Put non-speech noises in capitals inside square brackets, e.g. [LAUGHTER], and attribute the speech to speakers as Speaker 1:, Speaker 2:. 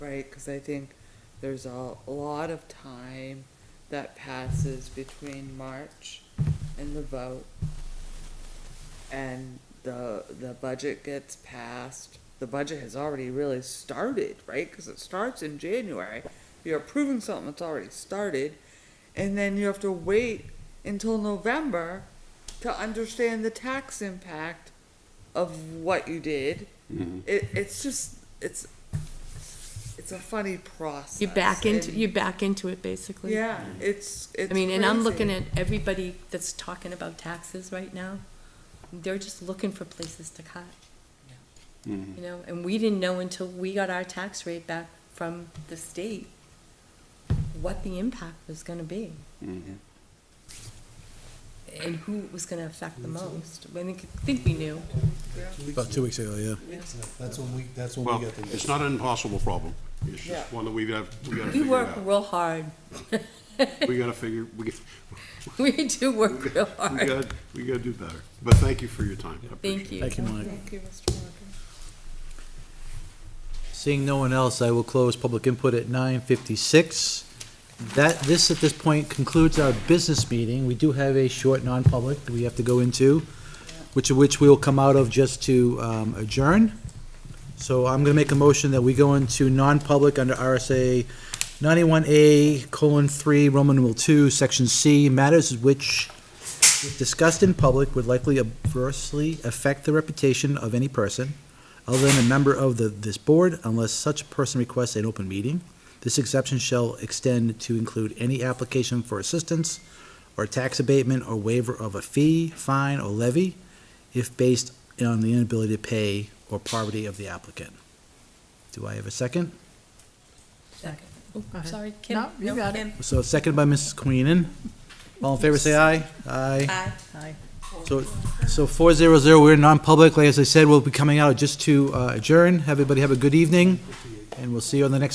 Speaker 1: right? Because I think there's a lot of time that passes between March and the vote. And the, the budget gets passed. The budget has already really started, right? Because it starts in January. You're approving something that's already started. And then you have to wait until November to understand the tax impact of what you did. It, it's just, it's, it's a funny process.
Speaker 2: You back into,
Speaker 1: and-
Speaker 2: you back into it, basically.
Speaker 1: Yeah, it's, it's.
Speaker 2: I mean, and I'm looking
Speaker 1: crazy.
Speaker 2: at everybody that's talking about taxes right now. They're just looking for places to cut. You know, and we didn't know until we got our tax rate back from the state what the impact was gonna be. And who it was gonna affect the most. I think, I think we knew.
Speaker 3: About two weeks ago, yeah.
Speaker 4: That's when we, that's when
Speaker 5: Well,
Speaker 4: we got the.
Speaker 5: it's not an impossible problem. It's
Speaker 1: Yeah.
Speaker 5: just one that we've got, we gotta
Speaker 2: We
Speaker 5: figure
Speaker 2: work
Speaker 5: out.
Speaker 2: real hard. [LAUGHS]
Speaker 5: We gotta figure, we,
Speaker 2: We do
Speaker 1: [LAUGHS]
Speaker 5: we
Speaker 2: work real hard.
Speaker 5: gotta, we gotta do better. But thank you for your time. I appreciate
Speaker 2: Thank you.
Speaker 3: Thank you, Mike.
Speaker 1: Thank you, Mr. Walker.
Speaker 3: Seeing no one else, I will close public input at nine fifty-six. That, this at this point concludes our business meeting. We do have a short non-public that we have to go into, which of which we will come out of just to um, adjourn. So I'm gonna make a motion that we go into non-public under RSA ninety-one A colon three, Roman numeral two, section C, matters which if discussed in public would likely adversely affect the reputation of any person other than a member of the, this board unless such person requests an open meeting. This exception shall extend to include any application for assistance or tax abatement or waiver of a fee, fine, or levy if based on the inability to pay or poverty of the applicant. Do I have a second?
Speaker 2: Second.
Speaker 6: Go ahead.
Speaker 2: Sorry, Kim.
Speaker 6: No, you got it.
Speaker 2: Kim.
Speaker 3: So second by Mrs. Queenan. All in favor, say aye. Aye.
Speaker 2: Aye.
Speaker 3: So, so four zero zero, we're non-public. Like as I said, we'll be coming out just to uh, adjourn. Everybody have a good evening, and we'll see you on the next